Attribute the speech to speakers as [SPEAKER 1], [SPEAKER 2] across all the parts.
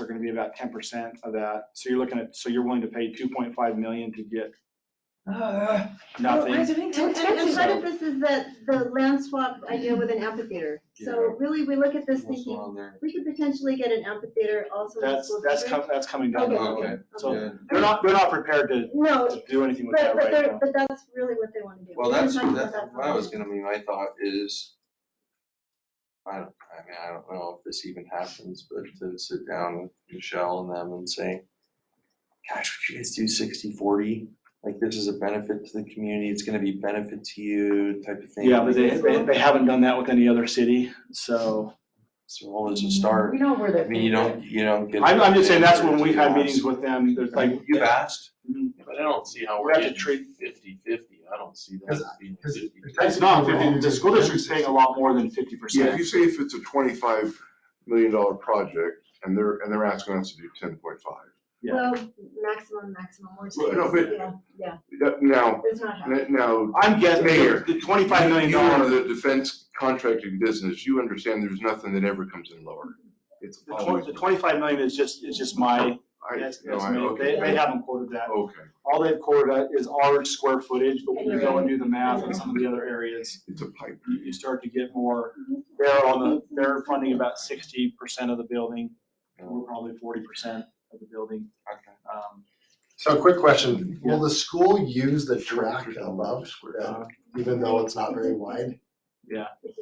[SPEAKER 1] are gonna be about ten percent of that. So you're looking at, so you're willing to pay two point five million to get
[SPEAKER 2] Ah, Why is
[SPEAKER 1] nothing?
[SPEAKER 2] everything too
[SPEAKER 3] And, and- and
[SPEAKER 2] expensive?
[SPEAKER 3] part of this is the, the land swap idea with an amphitheater. So really, we look at this thinking, we could potentially get an amphitheater also in the
[SPEAKER 1] That's,
[SPEAKER 3] school
[SPEAKER 1] that's,
[SPEAKER 3] district.
[SPEAKER 1] com- that's coming down. the
[SPEAKER 3] Okay,
[SPEAKER 1] road.
[SPEAKER 3] okay,
[SPEAKER 1] So
[SPEAKER 3] okay.
[SPEAKER 1] They're not, they're not prepared to,
[SPEAKER 3] No,
[SPEAKER 1] to do anything with
[SPEAKER 3] but,
[SPEAKER 1] that
[SPEAKER 3] but
[SPEAKER 1] right
[SPEAKER 3] they're,
[SPEAKER 1] now.
[SPEAKER 3] but that's really what they wanna do.
[SPEAKER 4] Well,
[SPEAKER 3] We're
[SPEAKER 4] that's,
[SPEAKER 3] talking about
[SPEAKER 4] that's
[SPEAKER 3] that
[SPEAKER 4] what I was
[SPEAKER 3] problem.
[SPEAKER 4] gonna be, my thought is, I don't, I mean, I don't know if this even happens, but to sit down with Michelle and them and say, gosh, would you guys do sixty, forty? Like, this is a benefit to the community, it's gonna be benefit to you type of thing.
[SPEAKER 1] Yeah, but they, they they haven't done that with any other city, so.
[SPEAKER 4] So always a start,
[SPEAKER 2] We know where
[SPEAKER 4] I
[SPEAKER 2] that.
[SPEAKER 4] mean, you don't, you don't get.
[SPEAKER 1] I'm, I'm just saying, that's when we've had meetings with them, there's
[SPEAKER 4] Like,
[SPEAKER 1] like,
[SPEAKER 4] you've asked,
[SPEAKER 1] Mhm.
[SPEAKER 5] But I don't see how
[SPEAKER 1] We
[SPEAKER 5] we're
[SPEAKER 1] have to
[SPEAKER 5] getting fifty-fifty, I don't see that as being fifty.
[SPEAKER 1] it's not, fifty- the school district's paying a lot more than fifty
[SPEAKER 6] Yeah, if
[SPEAKER 1] percent.
[SPEAKER 6] you say if it's a twenty-five million dollar project and they're, and they're asking us to do ten point five.
[SPEAKER 1] yeah.
[SPEAKER 3] Well, maximum, maximum, we're
[SPEAKER 6] Well, no, but-
[SPEAKER 3] saying, yeah, yeah,
[SPEAKER 6] Now,
[SPEAKER 3] it's not happening.
[SPEAKER 6] now.
[SPEAKER 1] I'm guessing,
[SPEAKER 6] Mayor,
[SPEAKER 1] the twenty-five million
[SPEAKER 6] You are
[SPEAKER 1] dollars,
[SPEAKER 6] the defense contracting business, you understand there's nothing that ever comes in lower. It's
[SPEAKER 1] the
[SPEAKER 6] always.
[SPEAKER 1] twenty, the twenty-five million is just, is just my,
[SPEAKER 6] I-
[SPEAKER 1] that's,
[SPEAKER 6] no,
[SPEAKER 1] that's
[SPEAKER 6] I-
[SPEAKER 1] me, they,
[SPEAKER 6] okay,
[SPEAKER 1] they haven't quoted that.
[SPEAKER 6] Okay,
[SPEAKER 1] All they've quoted is our square footage, but when you go and do the math on some of the other areas,
[SPEAKER 6] it's a pipe.
[SPEAKER 1] you, you start to get more. They're on the, they're funding about sixty percent of the building, and we're probably forty percent of the building.
[SPEAKER 4] Okay.
[SPEAKER 1] Um,
[SPEAKER 7] So a quick question, will the school use the track above, uh, even though it's not very wide?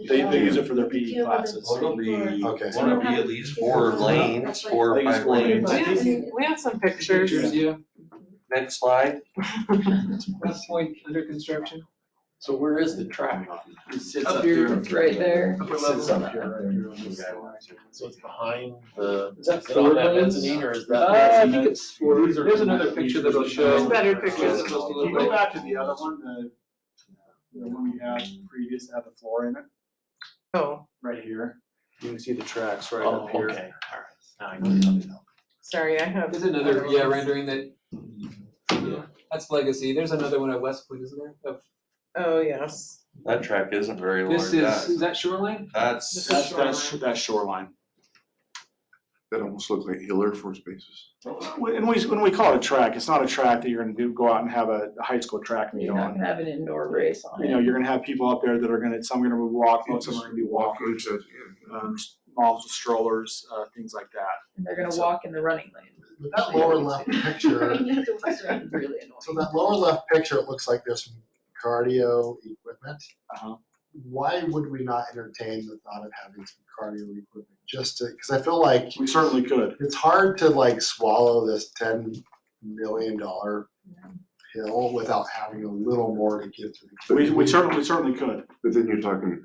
[SPEAKER 1] They, they use it for their PE classes.
[SPEAKER 4] Well, it'll be,
[SPEAKER 7] Okay.
[SPEAKER 4] it'll be at least four lanes, four or
[SPEAKER 1] At least
[SPEAKER 4] five
[SPEAKER 1] four lanes.
[SPEAKER 4] lanes.
[SPEAKER 8] We have, we have some pictures.
[SPEAKER 2] yeah.
[SPEAKER 4] Next slide.
[SPEAKER 2] That point under construction.
[SPEAKER 5] So where is the track?
[SPEAKER 1] It sits
[SPEAKER 8] Up
[SPEAKER 1] up
[SPEAKER 8] here,
[SPEAKER 1] here.
[SPEAKER 8] it's right there.
[SPEAKER 1] Upper
[SPEAKER 7] It
[SPEAKER 1] level.
[SPEAKER 7] sits up here, right here on this
[SPEAKER 4] Okay.
[SPEAKER 7] side.
[SPEAKER 8] So it's behind the.
[SPEAKER 5] Is that
[SPEAKER 8] it on
[SPEAKER 5] four
[SPEAKER 8] that
[SPEAKER 5] lanes?
[SPEAKER 8] mezzanine or is
[SPEAKER 5] Uh, I
[SPEAKER 8] that?
[SPEAKER 5] think it's four,
[SPEAKER 8] These are-
[SPEAKER 5] there's another picture that'll show.
[SPEAKER 8] There's better
[SPEAKER 1] pictures.
[SPEAKER 5] Just a
[SPEAKER 1] Can
[SPEAKER 5] little
[SPEAKER 1] you go
[SPEAKER 5] bit.
[SPEAKER 1] back to the other one, the, the one we had previous that had the floor in it,
[SPEAKER 8] Oh,
[SPEAKER 1] right here?
[SPEAKER 7] You can see the tracks right
[SPEAKER 5] Oh,
[SPEAKER 7] up here.
[SPEAKER 5] okay, all right. Now I get it.
[SPEAKER 8] sorry, I have.
[SPEAKER 2] There's another, yeah, rendering that, that's legacy. There's another one at West Point, isn't there? Of-
[SPEAKER 8] Oh, yes.
[SPEAKER 4] That track isn't very large.
[SPEAKER 2] This is, is that shoreline?
[SPEAKER 4] That's,
[SPEAKER 2] This
[SPEAKER 1] That's,
[SPEAKER 2] is
[SPEAKER 1] that's, that's shoreline.
[SPEAKER 6] That almost looked like Hill Air Force Bases.
[SPEAKER 1] When we, when we call it a track, it's not a track that you're gonna do, go out and have a a high school track meet
[SPEAKER 8] You're not
[SPEAKER 1] on.
[SPEAKER 8] gonna have an indoor race on
[SPEAKER 1] You know,
[SPEAKER 8] it.
[SPEAKER 1] you're gonna have people up there that are gonna, some are gonna be walking, some are gonna be walking,
[SPEAKER 6] Walkers,
[SPEAKER 1] um, moms with strollers, uh, things like that.
[SPEAKER 8] And they're gonna walk in the running lane.
[SPEAKER 7] But That lower left picture,
[SPEAKER 3] You have to watch that.
[SPEAKER 8] Really annoying.
[SPEAKER 7] so that lower left picture, it looks like there's some cardio equipment.
[SPEAKER 1] Uh-huh.
[SPEAKER 7] Why would we not entertain the thought of having some cardio equipment, just to, because I feel like
[SPEAKER 1] We certainly could.
[SPEAKER 7] it's hard to like swallow this ten million dollar pill without having a little more to give to the
[SPEAKER 1] We, we certainly, we certainly could.
[SPEAKER 6] But then you're talking,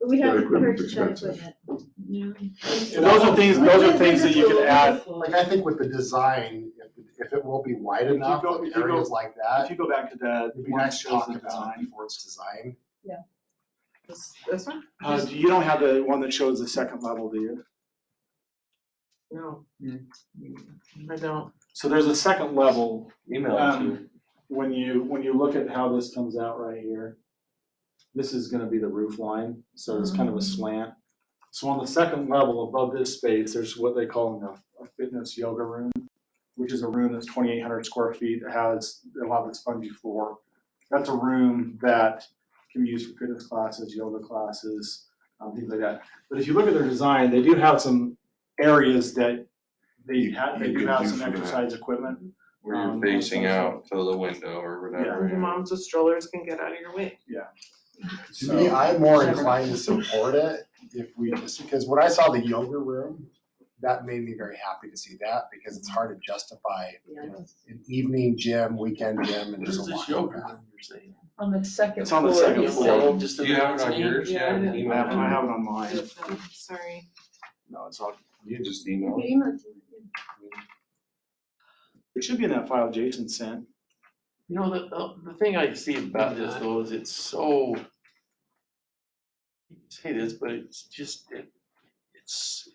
[SPEAKER 3] But We'd have
[SPEAKER 6] That
[SPEAKER 3] to
[SPEAKER 6] equipment's
[SPEAKER 3] purchase that
[SPEAKER 6] expensive.
[SPEAKER 3] equipment.
[SPEAKER 1] And Those are things, those are things that you could add.
[SPEAKER 7] Like, I think with the design, if, if it will be wide
[SPEAKER 1] If you
[SPEAKER 7] enough,
[SPEAKER 1] go-
[SPEAKER 7] like
[SPEAKER 1] if you go-
[SPEAKER 7] areas like
[SPEAKER 1] If
[SPEAKER 7] that,
[SPEAKER 1] you go back to the,
[SPEAKER 7] it'd be
[SPEAKER 1] one that
[SPEAKER 7] nice to
[SPEAKER 1] shows
[SPEAKER 7] talk
[SPEAKER 1] the
[SPEAKER 7] about it
[SPEAKER 1] design.
[SPEAKER 7] before it's designed.
[SPEAKER 8] This, this one?
[SPEAKER 1] Uh, you don't have the one that shows the second level, do you?
[SPEAKER 8] No.
[SPEAKER 2] Yeah.
[SPEAKER 8] I don't.
[SPEAKER 1] So there's a second level
[SPEAKER 4] email it to.
[SPEAKER 1] Um, When you, when you look at how this comes out right here, this is gonna be the roof line, so it's kind of a slant. So on the second level above this space, there's what they call a- a fitness yoga room, which is a room that's twenty-eight hundred square feet, that has a lot of spongy floor. That's a room that can be used for fitness classes, yoga classes, um, things like that. But if you look at their design, they do have some areas that they
[SPEAKER 6] You-
[SPEAKER 1] have, they
[SPEAKER 6] you
[SPEAKER 1] do
[SPEAKER 6] could
[SPEAKER 1] have
[SPEAKER 6] do
[SPEAKER 1] some
[SPEAKER 6] for that.
[SPEAKER 1] exercise equipment.
[SPEAKER 4] Where you're
[SPEAKER 1] Um,
[SPEAKER 4] facing out to the window or whatever.
[SPEAKER 8] Your moms with strollers can get out of your way.
[SPEAKER 7] To me, I'm more inclined to support it if we, just because when I saw the yoga room, that made me very happy to see that, because it's hard to justify
[SPEAKER 3] Yeah.
[SPEAKER 7] an evening gym, weekend gym, and there's a lot of that.
[SPEAKER 8] On the second
[SPEAKER 1] It's on the
[SPEAKER 8] floor,
[SPEAKER 1] second
[SPEAKER 8] you
[SPEAKER 1] floor.
[SPEAKER 8] said.
[SPEAKER 4] Do you have it on yours?
[SPEAKER 8] Yeah, I
[SPEAKER 4] Yeah,
[SPEAKER 8] didn't-
[SPEAKER 1] I have, I
[SPEAKER 4] email
[SPEAKER 1] have it on mine.
[SPEAKER 8] Sorry.
[SPEAKER 1] No, it's all,
[SPEAKER 4] it. You just email
[SPEAKER 3] You
[SPEAKER 4] it.
[SPEAKER 3] email it to me.
[SPEAKER 1] it should be in that file Jason sent.
[SPEAKER 5] You know, the- the, the thing I see about this though is it's so. Say this, but it's just, it, it's.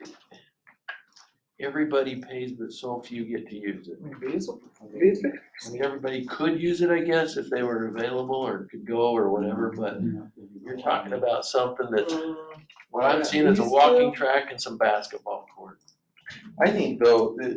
[SPEAKER 5] Everybody pays, but so few get to use it. I mean, everybody could use it, I guess, if they were available or could go or whatever, but you're talking about something that,
[SPEAKER 8] Mm.
[SPEAKER 5] what I'm seeing is a walking track and some basketball court.
[SPEAKER 4] I think though, that